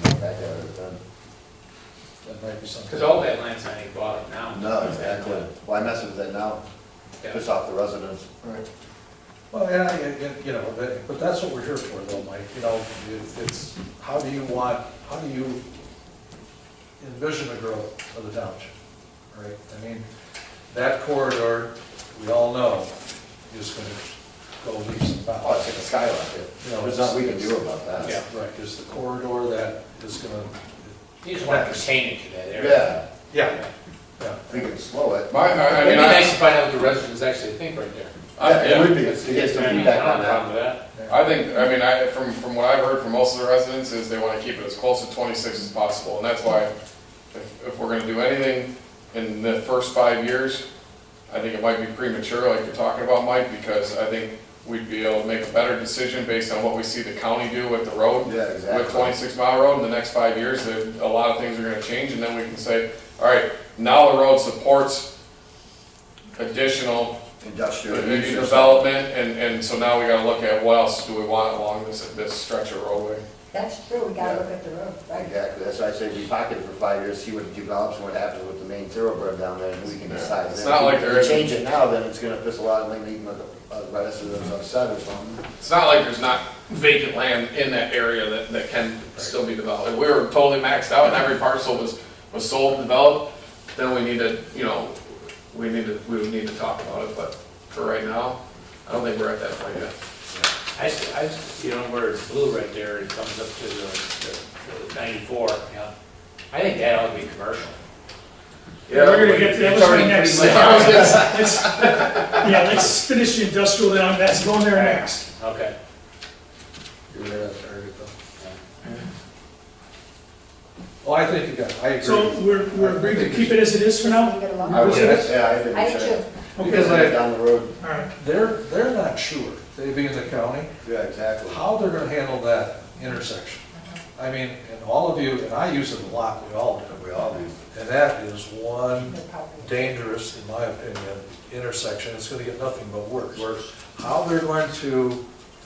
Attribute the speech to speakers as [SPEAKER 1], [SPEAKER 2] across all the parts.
[SPEAKER 1] back out of it then.
[SPEAKER 2] That might be something.
[SPEAKER 3] Because all that land's not even bought now.
[SPEAKER 1] No, exactly. Why mess with that now?
[SPEAKER 3] Yeah.
[SPEAKER 1] Piss off the residents.
[SPEAKER 2] Right. Well, yeah, yeah, yeah, you know, but, but that's what we're here for though, Mike, you know, it- it's, how do you want, how do you envision the growth of the township? Right, I mean, that corridor, we all know, is gonna go leaps
[SPEAKER 1] Oh,
[SPEAKER 2] and
[SPEAKER 1] it's
[SPEAKER 2] bounds.
[SPEAKER 1] like a skyrocket.
[SPEAKER 2] You know,
[SPEAKER 1] There's nothing we can do about that.
[SPEAKER 3] Yeah.
[SPEAKER 2] Right, is the corridor that is gonna,
[SPEAKER 3] You just want to contain it to that area.
[SPEAKER 1] Yeah,
[SPEAKER 2] yeah, yeah.
[SPEAKER 1] we can slow it.
[SPEAKER 4] My, I, I
[SPEAKER 3] It'd
[SPEAKER 4] mean,
[SPEAKER 3] be nice
[SPEAKER 4] I,
[SPEAKER 3] to find out what the residents actually think right there.
[SPEAKER 4] I,
[SPEAKER 1] It would
[SPEAKER 4] Uh, yeah.
[SPEAKER 1] be, to get some
[SPEAKER 3] I mean,
[SPEAKER 1] feedback
[SPEAKER 3] I don't
[SPEAKER 1] on
[SPEAKER 3] have a
[SPEAKER 1] that.
[SPEAKER 3] problem with
[SPEAKER 4] I think, I mean, I, from, from what I've heard from most of the residents is they wanna keep it as close to twenty-six as possible, and that's why if, if we're gonna do anything in the first five years, I think it might be premature, like you're talking about, Mike, because I think we'd be able to make a better decision based on what we see the county do with the road.
[SPEAKER 1] Yeah,
[SPEAKER 4] with
[SPEAKER 1] exactly.
[SPEAKER 4] twenty-six mile road in the next five years, there, a lot of things are gonna change, and then we can say, all right, now the road supports additional
[SPEAKER 1] Industrial. use or
[SPEAKER 4] development, and, and so now we gotta look at what else do we want along this, this stretch of roadway.
[SPEAKER 5] That's true, we gotta look at the road,
[SPEAKER 1] something.
[SPEAKER 5] right?
[SPEAKER 1] Exactly. That's why I say we pocket it for five years, see what develops and what happens with the main thoroughbread down there and we can
[SPEAKER 4] Yeah.
[SPEAKER 1] decide.
[SPEAKER 4] It's
[SPEAKER 1] then.
[SPEAKER 4] not like there
[SPEAKER 1] If
[SPEAKER 4] is-
[SPEAKER 1] we change it now, then it's gonna piss a lot of land, uh, residents upset or something.
[SPEAKER 4] It's not like there's not vacant land in that area that, that can still be developed. If we were totally maxed out and every parcel was, was sold and developed, then we need to, you know, we need to, we would need to talk about it, but for right now, I don't think we're at that point yet.
[SPEAKER 3] that. I, s- I s- you know, where it's blue right there, it comes up to the- the the ninety-four, you know. I think that ought to be commercial.
[SPEAKER 6] Yeah, we're gonna get to that.
[SPEAKER 3] It's already
[SPEAKER 6] Next.
[SPEAKER 3] pretty much-
[SPEAKER 6] Let's- Yeah, let's finish the industrial down, that's going there next.
[SPEAKER 3] Okay.
[SPEAKER 2] You're right on target though. Well, I think you got, I agree.
[SPEAKER 6] So we're, we're agreed to keep it as it is for now?
[SPEAKER 5] Leave it alone.
[SPEAKER 1] I would,
[SPEAKER 6] Appreciate it.
[SPEAKER 1] yeah, I think
[SPEAKER 5] I
[SPEAKER 1] we
[SPEAKER 5] do
[SPEAKER 1] should.
[SPEAKER 5] too.
[SPEAKER 1] Because
[SPEAKER 6] Okay,
[SPEAKER 2] I-
[SPEAKER 1] they're down the road.
[SPEAKER 6] all right.
[SPEAKER 2] They're, they're not sure, they being the county,
[SPEAKER 1] Yeah, exactly.
[SPEAKER 2] how they're gonna handle that intersection. I mean, and all of you, and I use it a lot, we all do.
[SPEAKER 1] We all do.
[SPEAKER 2] And that is one
[SPEAKER 5] No problem.
[SPEAKER 2] dangerous, in my opinion, intersection, it's gonna get nothing but worse.
[SPEAKER 1] Worse.
[SPEAKER 2] How they're going to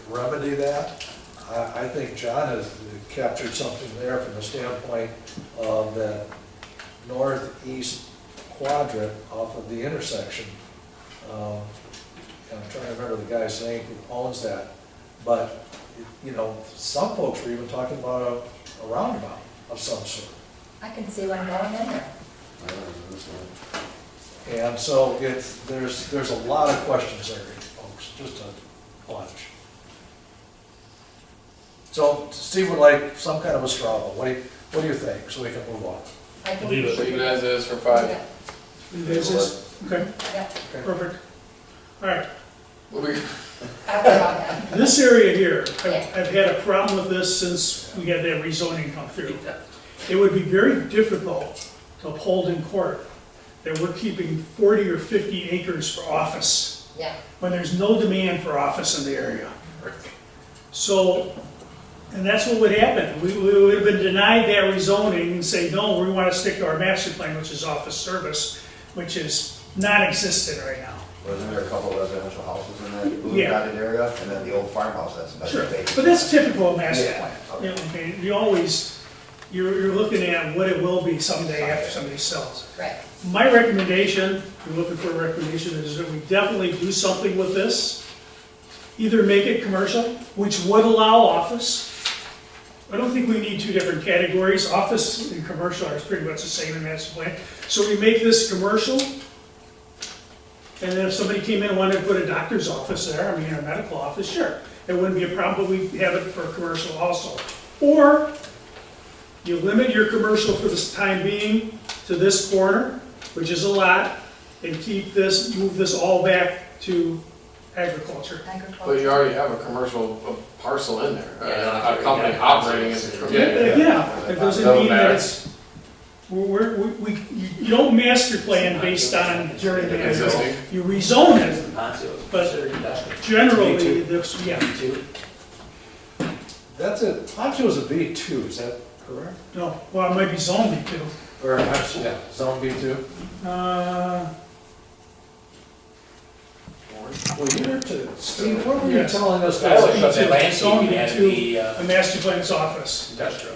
[SPEAKER 2] remedy that, I, I think John has captured something there from the standpoint of that northeast quadrant off of the intersection. Um, and I'm trying to remember the guy's name who owns that, but, you know, some folks were even talking about a- a roundabout of some sort.
[SPEAKER 5] I can see one going in there.
[SPEAKER 1] I don't know, this one.
[SPEAKER 2] And so it's, there's, there's a lot of questions there, folks, just a bunch. So Steve would like some kind of a straw, vote. what do you, what do you think, so we can move on?
[SPEAKER 5] I think
[SPEAKER 6] Leave
[SPEAKER 5] we
[SPEAKER 6] it.
[SPEAKER 5] should
[SPEAKER 4] Leave it as is for
[SPEAKER 5] do
[SPEAKER 4] five.
[SPEAKER 5] that.
[SPEAKER 6] Leave it as is? Okay,
[SPEAKER 5] Yeah,
[SPEAKER 6] perfect. All right,
[SPEAKER 4] Well, we-
[SPEAKER 5] I'll be on that.
[SPEAKER 6] this area here, I've-
[SPEAKER 5] Yeah.
[SPEAKER 6] I've had a problem with this since we had that rezoning come through. It would be very difficult to uphold in court that we're keeping 40 or 50 acres for office.
[SPEAKER 5] Yeah,
[SPEAKER 6] when there's no demand for office in the area. So, and that's what would happen. We, we would have been denied that rezoning and say, no, we want to stick to our master plan, which is office service, which is non-existent right now.
[SPEAKER 1] Wasn't there a couple of residential houses in that blue
[SPEAKER 6] Yeah.
[SPEAKER 1] dotted area, and then the old farmhouse, that's about
[SPEAKER 6] Sure,
[SPEAKER 1] vacant.
[SPEAKER 6] but that's typical of master
[SPEAKER 1] Yeah,
[SPEAKER 6] plan.
[SPEAKER 1] okay.
[SPEAKER 6] You know, okay, you always, you're, you're looking at what it will be someday after somebody sells.
[SPEAKER 5] right.
[SPEAKER 6] My recommendation, if you're looking for a recommendation, is that we definitely do something with this. Either make it commercial, which would allow office. I don't think we need two different categories. Office and commercial are pretty much the same in master plan. So we make this commercial. And then if somebody came in and wanted to put a doctor's office there, I mean, a medical office, sure. It wouldn't be a problem, but we have it for commercial also. Or you limit your commercial for this time being to this corner, which is a lot, and keep this, move this all back to agriculture.
[SPEAKER 4] But
[SPEAKER 5] Agriculture.
[SPEAKER 4] you already have a commercial uh, parcel in there,
[SPEAKER 3] Yeah.
[SPEAKER 4] a a company operating as a.
[SPEAKER 3] Yeah,
[SPEAKER 6] Yeah, it doesn't
[SPEAKER 4] Doesn't
[SPEAKER 6] mean that
[SPEAKER 4] matter.
[SPEAKER 6] it's, we're, we're- we, you you don't master plan based on during the agriculture.
[SPEAKER 4] Existing.
[SPEAKER 6] You rezone it But- generally,
[SPEAKER 3] Me too.
[SPEAKER 6] this, yeah,
[SPEAKER 2] That's it, Poncho's a B two, is that correct?
[SPEAKER 6] no, well, it might be zoned too.
[SPEAKER 2] Or, I'm s- yeah, zone B two?
[SPEAKER 6] Uh,
[SPEAKER 2] Well, you're to, Steve, what were you
[SPEAKER 6] Yes.
[SPEAKER 2] telling us?
[SPEAKER 3] I
[SPEAKER 2] that-
[SPEAKER 3] always thought that
[SPEAKER 6] Zone
[SPEAKER 3] landscaping had to
[SPEAKER 6] B two.
[SPEAKER 3] be uh,
[SPEAKER 6] a master plan's office.
[SPEAKER 3] industrial.